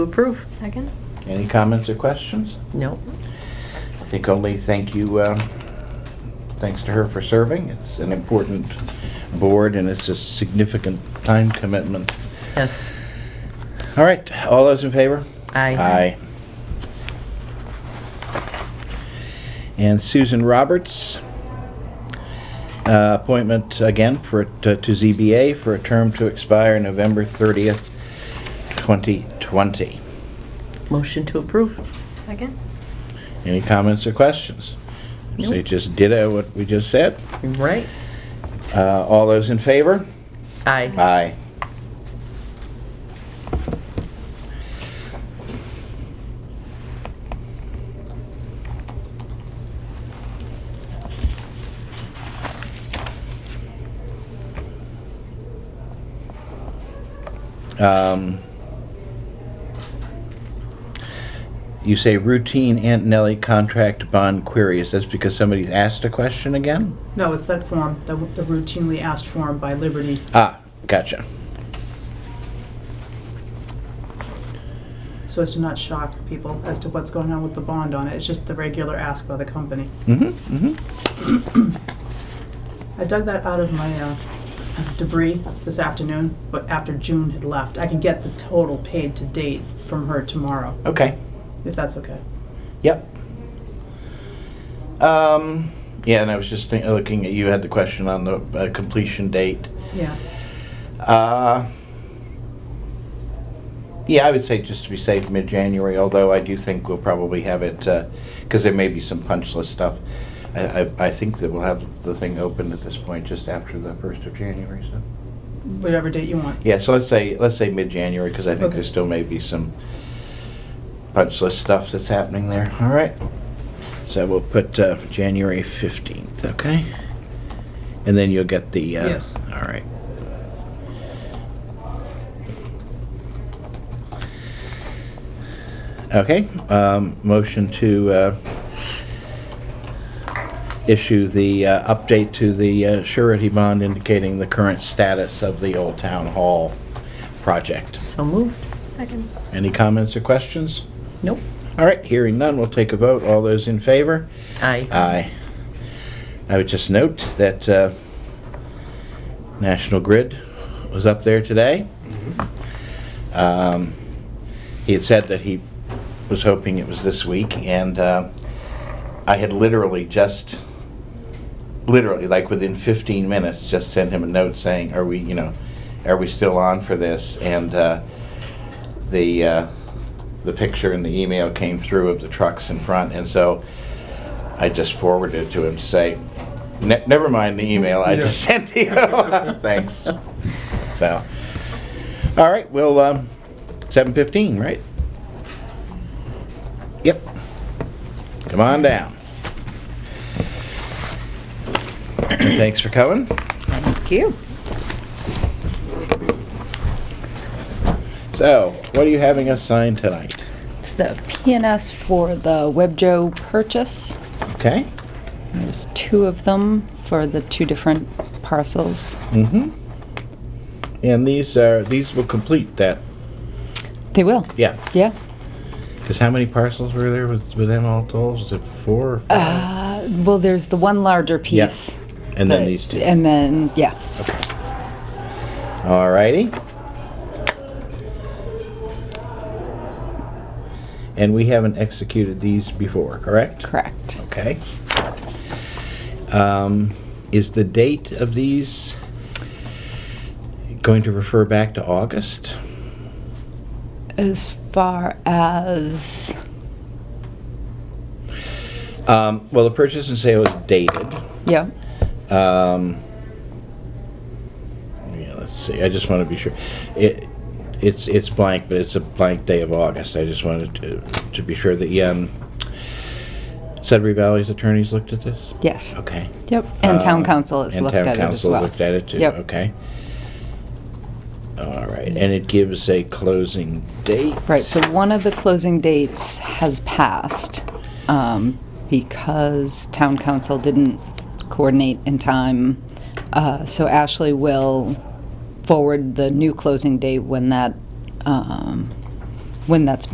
approve. Second? Any comments or questions? No. I think only thank you, um, thanks to her for serving. It's an important board and it's a significant time commitment. Yes. All right, all those in favor? Aye. Aye. And Susan Roberts, uh, appointment again for, to to ZBA for a term to expire November 30th, 2020. Motion to approve. Second? Any comments or questions? So you Nope. just ditto what we just said. Right. Uh, All those in favor? Aye. Aye. Um, You say routine Aunt Nellie contract bond queries. That's because somebody's asked a question again? No, it's that form, the the routinely asked form by Liberty. Ah, gotcha. so as to not shock people as to what's going on with the bond on it. It's just the regular ask by the company. Mm-hmm, mm-hmm. I dug that out of my uh, debris this afternoon, but after June had left, I can get the total paid to date from her tomorrow, Okay. if that's okay. Yep. Um, yeah, and I was just think, looking at you had the question on the uh, completion date. Yeah. Uh, yeah, I would say just to be safe, mid-January. Although I do think we'll probably have it because there may be some punch list stuff. I, I, I think that we'll have the thing open at this point just after the first of January. So Whatever date you want. yeah, so let's say let's say mid-January because I think Okay. there still may be some punch list stuff that's happening there. All right. So we'll put uh, January 15th, okay? And then you'll get the... uh, Yes. All right. Okay, um, motion to uh, issue the uh, update to the uh, surety bond indicating the current status of the Old Town Hall project. So moved. Second. Any comments or questions? Nope. All right, hearing none, we'll take a vote. All those in favor? Aye. Aye. I would just note that uh, National Grid was up there today. Um, He had said that he was hoping it was this week, and uh, I had literally just, literally, like within 15 minutes, just sent him a note saying, are we, you know, are we still on for this? And uh, the, uh, the picture and the email came through of the trucks in front, and so I just forwarded it to him to say, "Ne- never mind the email I just sent to you. Thanks. So, all right, well, um, 7:15, right? Yep. Come on down. Thanks for coming. Thank you. So, what are you having us sign tonight? It's the PNS for the WebJo purchase. Okay? There's two of them for the two different parcels. Mm-hmm. And these are, these will complete that, They will. yeah. Yeah. Because how many parcels were there with, with them all told? Was it four or five? Uh, well, there's the one larger Yeah. piece. And then that- these two. And then, yeah. Alrighty. And we haven't executed these before, correct? Correct. Okay. Um, Is the date of these going to refer back to August? As far as. Um, Well, the purchase and sale is dated. Yeah. Um, Yeah, let's see, I just want to be sure. It, it's, it's blank, but it's a blank day of August. I just wanted to, to be sure that, um, Sudbury Valley's attorneys looked at this? Yes. Okay. Yep. And town Uh, council has and looked town at it as council well. looked at it too, Yep. okay. All right, and it gives a closing date? Right, so one of the closing dates has passed um, because town council didn't coordinate in time. Uh, So Ashley will forward the new closing date when that um, when that's been